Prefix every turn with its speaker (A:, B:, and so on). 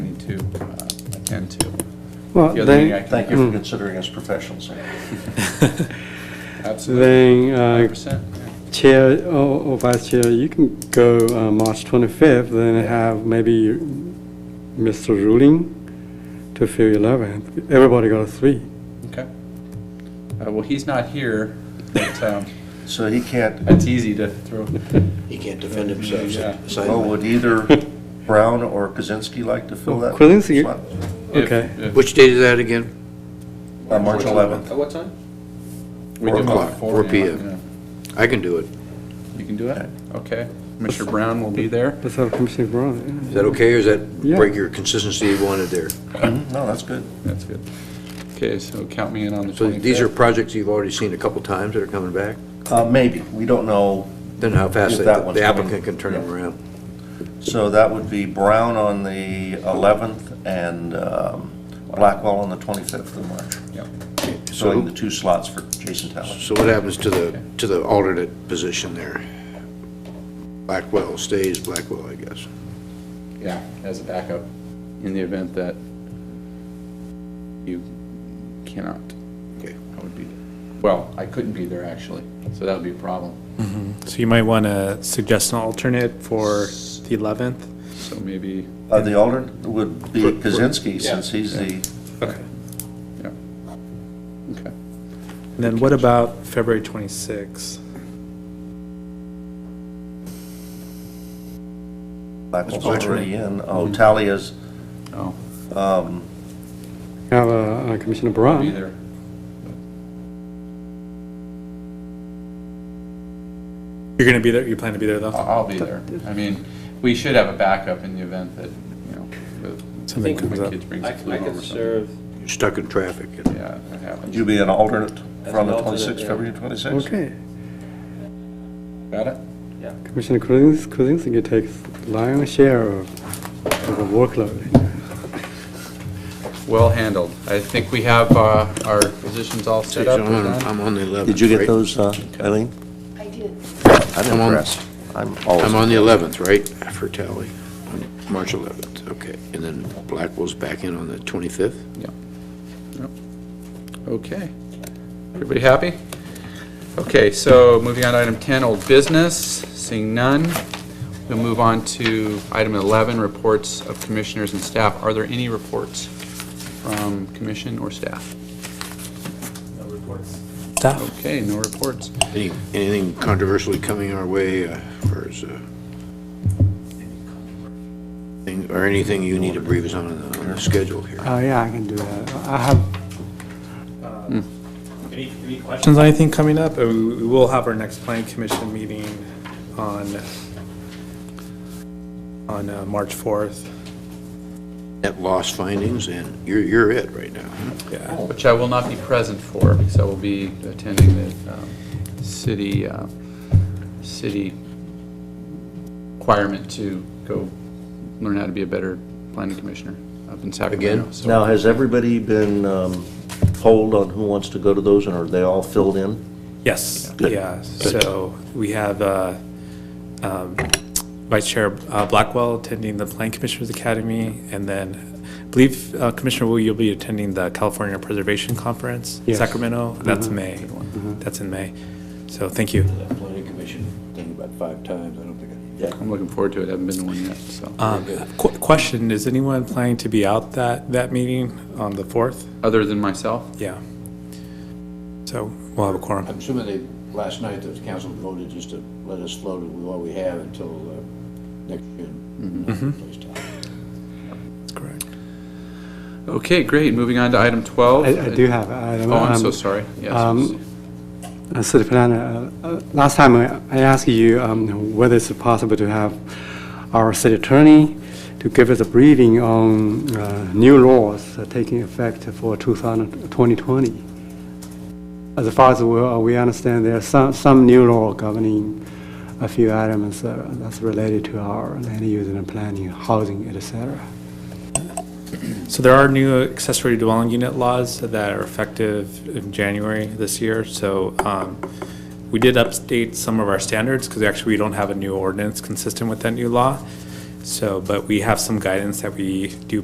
A: to uh, attend to.
B: Well,
A: The other thing I
B: then,
A: can,
C: Thank you for considering us professionals.
A: absolutely,
B: then uh,
A: 100%. yeah.
B: Chair or or Vice Chair, you can go uh, March 25th, then have maybe Mr. Ruling to fill 11th. Everybody got a three.
A: Okay. Uh, Well, he's not here, but um,
C: So he can't,
A: it's easy to throw.
D: He can't defend himself.
A: Yeah.
D: so-
C: well, would either Brown or Kozinski like to fill that?
B: Kozinski-
C: slot?
A: if-
B: Okay.
A: if-
D: Which date is that again?
C: Uh, March 11th.
E: At what time?
A: we
C: four
A: do about
C: o'clock,
D: four
A: p.m.
D: p.m.. I can do it.
A: yeah. You can do it? Okay. Commissioner Brown will be there.
B: Let's have Commissioner Brown.
D: Is that okay, or is that
B: Yeah.
D: break your consistency you wanted there?
C: Mhm, No, that's good.
A: That's good. Okay, so count me in on the 25th.
D: So these are projects you've already seen a couple times that are coming back?
C: Uh, Maybe, we don't know.
D: Then how fast
C: If
D: they-
C: that one's
D: the applicant
C: coming.
D: can turn them
C: Yeah.
D: around?
C: So that would be Brown on the 11th and um, Blackwell on the 25th of March.
A: Yep.
C: Filling the
D: So,
C: two slots for Jason Talent.
D: so what happens to the, to the alternate position there? Blackwell stays Blackwell, I guess.
A: Yeah, as a backup, in the event that you cannot.
D: Okay.
A: I would be, well, I couldn't be there, actually, so that would be a problem.
F: So you might want to suggest an alternate for the 11th?
A: So maybe,
C: Uh, The alternate would be Kozinski, since he's the,
F: Okay.
A: yeah. Okay.
F: And then what about February 26th?
C: Blackwell's already in. Oh, Talia's,
A: Oh,
B: Have uh, uh, Commissioner
A: I'll be
B: Brown.
A: there.
F: You're going to be there, you plan to be there though?
A: I'll I'll be there. I mean, we should have a backup in the event that, you know, the-
F: Something
A: one of
F: comes
A: my
F: up.
A: kids brings
E: I
A: a
E: can
A: flu
E: I
A: home or
E: can
A: something.
E: serve,
D: You're stuck in traffic.
A: Yeah, that happens.
C: you'll be an alternate
E: As
C: from
E: an
C: the
E: alternate,
C: 26th,
E: yeah.
C: February 26th.
B: Okay.
A: Got it?
B: Commissioner Kuzins- Kuzinski takes lion's share of of the workload.
A: Well handled. I think we have uh, our positions all set up.
D: I'm on-
A: We're done.
D: I'm on the 11th.
C: Did you get
D: right?
C: those, uh, Eileen?
G: I did.
C: I'm
D: I'm on-
C: impressed. I'm always.
D: I'm on the 11th, right, for tally? On March 11th, okay. And then Blackwell's back in on the 25th?
A: Okay. Everybody happy? Okay, so moving on to item 10, old business, seeing none. We'll move on to item 11, reports of commissioners and staff. Are there any reports from commission or staff?
F: Staff?
A: Okay, no reports.
D: Any- Anything controversially coming our way, uh, or is, uh, thing- or anything you need to brief us on the, on the schedule here?
B: Oh,
F: Uh,
B: yeah, I can do that. I have
F: Um, Any any questions on anything coming up? Uh, We we will have our next planning commission meeting on, on uh, March 4th.
D: Net loss findings, and you're, you're it right now. huh?
F: Yeah.
A: Which I will not be present for, because I will be attending the um, city, uh, city requirement to go learn how to be a better planning commissioner up in Sacramento.
D: Again?
A: so-
C: Now, has everybody been um, polled on who wants to go to those, and are they all filled in?
F: Yes, yeah. So we have uh, um, Vice Chair uh, Blackwell attending the Plan Commissioners Academy, and then I believe uh, Commissioner Wu, you'll be attending the California Preservation Conference in
B: Yes.
F: Sacramento. That's May. That's in May. So thank you.
D: That planning commission thing about five times, I don't think I.
A: I'm looking forward to it, I haven't been to one yet, so.
F: Um, qu- Question, is anyone planning to be out that, that meeting on the 4th?
A: Other than myself?
F: Yeah. So we'll have a quorum.
D: I'm assuming they, last night, the council voted just to let us float with what we have until uh, next June.
F: That's correct.
A: Okay, great, moving on to item 12.
B: I I do have. I don't
A: Oh,
B: know,
A: I'm
B: um,
A: so sorry, yes.
B: um, uh, City Planner, uh, uh, last time I I asked you um, whether it's possible to have our city attorney to give us a briefing on uh, new laws uh, taking effect for 2000 2020. As far as we uh, we understand, there are some some new law governing a few items uh, that's related to our land use and planning, housing, et cetera.
F: So there are new accessory dwelling unit laws that are effective in January this year. So um, we did update some of our standards because actually we don't have a new ordinance consistent with that new law. So, but we have some guidance that we do